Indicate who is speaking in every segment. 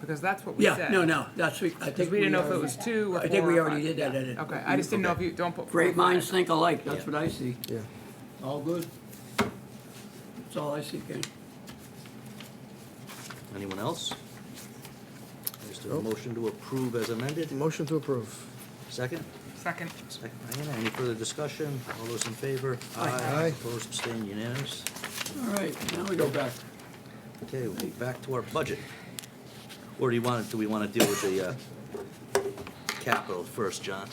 Speaker 1: Because that's what we said.
Speaker 2: Yeah, no, no, that's, I
Speaker 1: Because
Speaker 2: think
Speaker 1: we didn't know if it
Speaker 2: already-
Speaker 1: was two or
Speaker 2: I think
Speaker 1: four
Speaker 2: we
Speaker 1: or
Speaker 2: already
Speaker 1: five.
Speaker 2: did that,
Speaker 1: Yeah.
Speaker 2: edit.
Speaker 1: Okay, I just didn't know if you, don't put. four or
Speaker 2: Great
Speaker 1: five.
Speaker 2: minds think alike, that's what I see.
Speaker 3: Yeah.
Speaker 2: All good. That's all I see, Ken.
Speaker 4: Anyone else? Just a motion to approve as amended.
Speaker 3: Motion to approve.
Speaker 4: Second?
Speaker 1: Second.
Speaker 4: Second, Diana. Any further discussion? All those in favor?
Speaker 3: Aye.
Speaker 4: Opposed, abstained, unanimous.
Speaker 2: All right, now we go back.
Speaker 4: Okay, we'll be back to our budget. Or do you want, do we want to deal with the uh, capital first, John?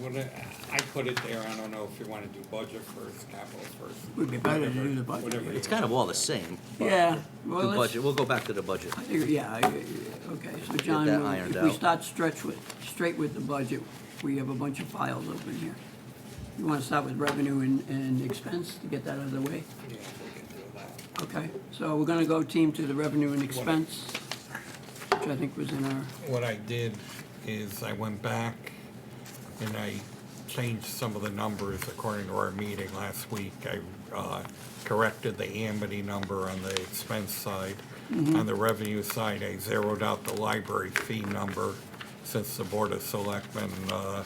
Speaker 5: What, I- I put it there, I don't know if you wanna do budget first, capital first.
Speaker 2: Would be better to
Speaker 5: whatever-
Speaker 2: do the budget.
Speaker 5: whatever you
Speaker 4: It's kind of all the same.
Speaker 2: Yeah,
Speaker 4: The
Speaker 2: well, let's,
Speaker 4: budget, we'll go back to the budget.
Speaker 2: I think- yeah, I- okay, so John,
Speaker 4: that
Speaker 2: we'll-
Speaker 4: ironed
Speaker 2: if we
Speaker 4: out.
Speaker 2: start stretch with, straight with the budget, we have a bunch of files open here. You want to start with revenue and, and expense to get that out of the way?
Speaker 5: want. Yeah, if we can do that.
Speaker 2: Okay, so we're gonna go team to the revenue and expense, which I think was in our,
Speaker 5: What I did is I went back and I changed some of the numbers according to our meeting last week. I uh, corrected the Amity number on the expense side. On the revenue side, I zeroed out the library fee number since the Board of Selectmen uh,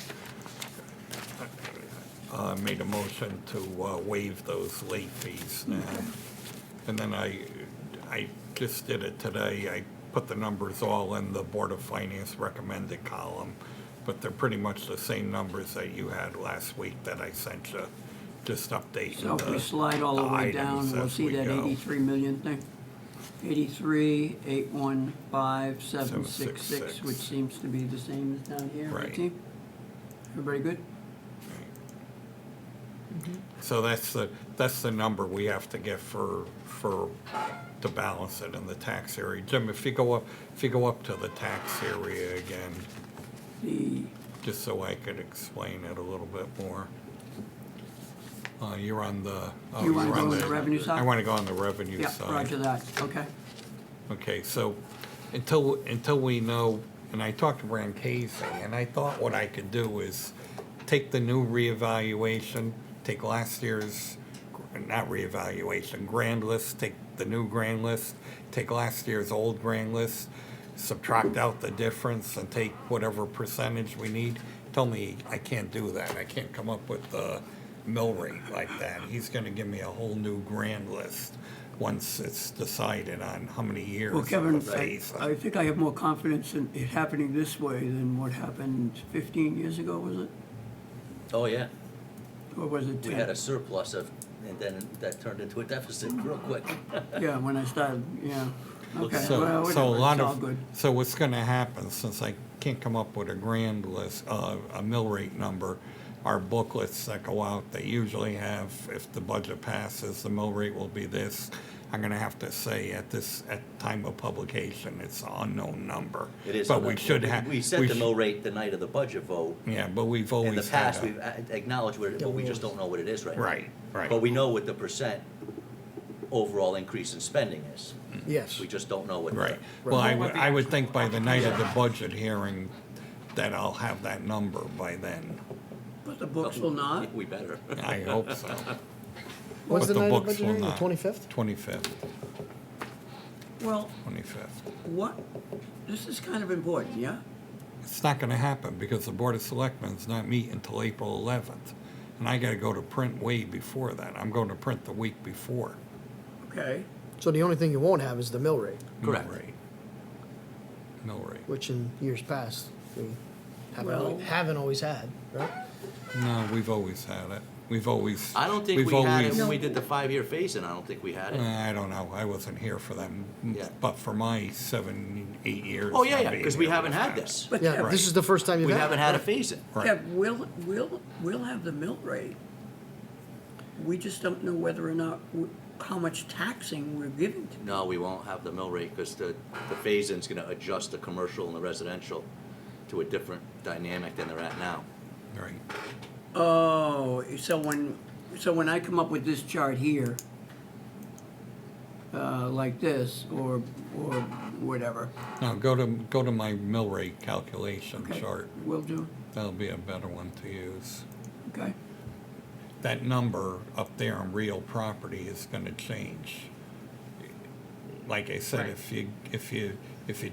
Speaker 5: uh, made a motion to uh, waive those late fees now. And then I, I just did it today. I put the numbers all in the Board of Finance recommended column, but they're pretty much the same numbers that you had last week that I sent you, just updating
Speaker 2: so if we
Speaker 5: the-
Speaker 2: slide all the way
Speaker 5: Uh, items
Speaker 2: down, we'll
Speaker 5: as
Speaker 2: see
Speaker 5: we
Speaker 2: that
Speaker 5: go.
Speaker 2: eighty-three million thing. Eighty-three, eight, one, five, seven,
Speaker 5: Seven,
Speaker 2: six,
Speaker 5: six,
Speaker 2: six,
Speaker 5: six.
Speaker 2: which seems to be the same as down here, right,
Speaker 5: Right.
Speaker 2: team? Everybody good?
Speaker 5: So that's the, that's the number we have to get for, for, to balance it in the tax area. Jim, if you go up, if you go up to the tax area again,
Speaker 2: The,
Speaker 5: just so I could explain it a little bit more. Uh, you're on the. oh,
Speaker 2: You wanna
Speaker 5: you're
Speaker 2: go on the revenue side?
Speaker 5: I want to go on the revenue
Speaker 2: yeah,
Speaker 5: side.
Speaker 2: roger that, okay.
Speaker 5: Okay, so until, until we know, and I talked to Brian Casey, and I thought what I could do is take the new reevaluation, take last year's, not reevaluation, grand list, take the new grand list, take last year's old grand list, subtract out the difference and take whatever percentage we need. Tell me I can't do that. I can't come up with the mill rate like that. He's gonna give me a whole new grand list once it's decided on how many years.
Speaker 2: Well,
Speaker 5: of
Speaker 2: Kevin,
Speaker 5: the
Speaker 2: I,
Speaker 5: phase.
Speaker 2: I think I have more confidence in it happening this way than what happened fifteen years ago, was it?
Speaker 4: Oh, yeah.
Speaker 2: Or was it ten?
Speaker 4: We had a surplus of, and then that turned into a deficit real quick.
Speaker 2: Yeah, when I started, yeah. Okay, well,
Speaker 5: So, so
Speaker 2: whatever,
Speaker 5: a lot
Speaker 2: it's all
Speaker 5: of,
Speaker 2: good.
Speaker 5: so what's gonna happen, since I can't come up with a grand list, uh, a mill rate number, our booklets that go out, they usually have, if the budget passes, the mill rate will be this. I'm gonna have to say at this, at time of publication, it's an unknown number.
Speaker 4: It is.
Speaker 5: But we should have.
Speaker 4: We set the mill
Speaker 5: rate.
Speaker 4: rate the night of the budget vote.
Speaker 5: Yeah, but we've
Speaker 4: In the
Speaker 5: always had
Speaker 4: past,
Speaker 5: a,
Speaker 4: we've a- acknowledged what it, but we just don't know what it is right now.
Speaker 5: Right, right.
Speaker 4: But we know what the percent overall increase in spending is.
Speaker 3: Yes.
Speaker 4: We just don't know what. the-
Speaker 5: Mm. right. Well, I,
Speaker 1: Well,
Speaker 5: would-
Speaker 1: what the
Speaker 5: I would think by the night of the budget hearing, that I'll have that number by then.
Speaker 2: But the books will not.
Speaker 4: We better.
Speaker 5: I hope so.
Speaker 3: When's
Speaker 5: But
Speaker 3: the night of
Speaker 5: books
Speaker 3: budget
Speaker 5: will
Speaker 3: hearing? The
Speaker 5: not.
Speaker 3: twenty-fifth?
Speaker 5: 25th,
Speaker 2: Well,
Speaker 5: 25th.
Speaker 2: what, this is kind of important, yeah?
Speaker 5: It's not gonna happen because the Board of Selectmen's not meet until April 11th. And I gotta go to print way before that. I'm going to print the week before.
Speaker 2: Okay,
Speaker 3: So the only thing you won't have is the mill rate,
Speaker 5: mill
Speaker 4: Correct.
Speaker 5: rate. Mill rate.
Speaker 3: which in years past, we haven't,
Speaker 2: Well-
Speaker 3: al- haven't always had, right?
Speaker 5: No, we've always had it. We've always.
Speaker 4: I don't think
Speaker 5: we've
Speaker 4: we had it
Speaker 5: always-
Speaker 4: when we did the five-year phase-in, I don't think we had
Speaker 5: Uh,
Speaker 4: it.
Speaker 5: I don't know. I wasn't here for them.
Speaker 4: Yeah.
Speaker 5: But for my seven, eight years.
Speaker 4: Oh, yeah,
Speaker 5: I've
Speaker 4: yeah,
Speaker 5: been
Speaker 4: because we
Speaker 5: here,
Speaker 4: haven't
Speaker 5: we've
Speaker 4: had this.
Speaker 2: but
Speaker 3: Yeah,
Speaker 2: Kev,
Speaker 3: this is the first time you've
Speaker 4: We
Speaker 3: had. it,
Speaker 4: haven't had a
Speaker 3: right?
Speaker 4: phase-in.
Speaker 5: Right.
Speaker 2: Kev, we'll, we'll, we'll have the mill rate. We just don't know whether or not, w- how much taxing we're giving to.
Speaker 4: No, we won't have the mill rate because the, the phase-in's gonna adjust the commercial and the residential to a different dynamic than they're at now.
Speaker 5: Right.
Speaker 2: Oh, so when, so when I come up with this chart here, uh, like this, or, or whatever,
Speaker 5: Now, go to, go to my mill rate calculation
Speaker 2: okay,
Speaker 5: chart.
Speaker 2: will do,
Speaker 5: That'll be a better one to use.
Speaker 2: okay?
Speaker 5: that number up there on real property is gonna change. Like I said,
Speaker 1: Right.
Speaker 5: if you, if you, if you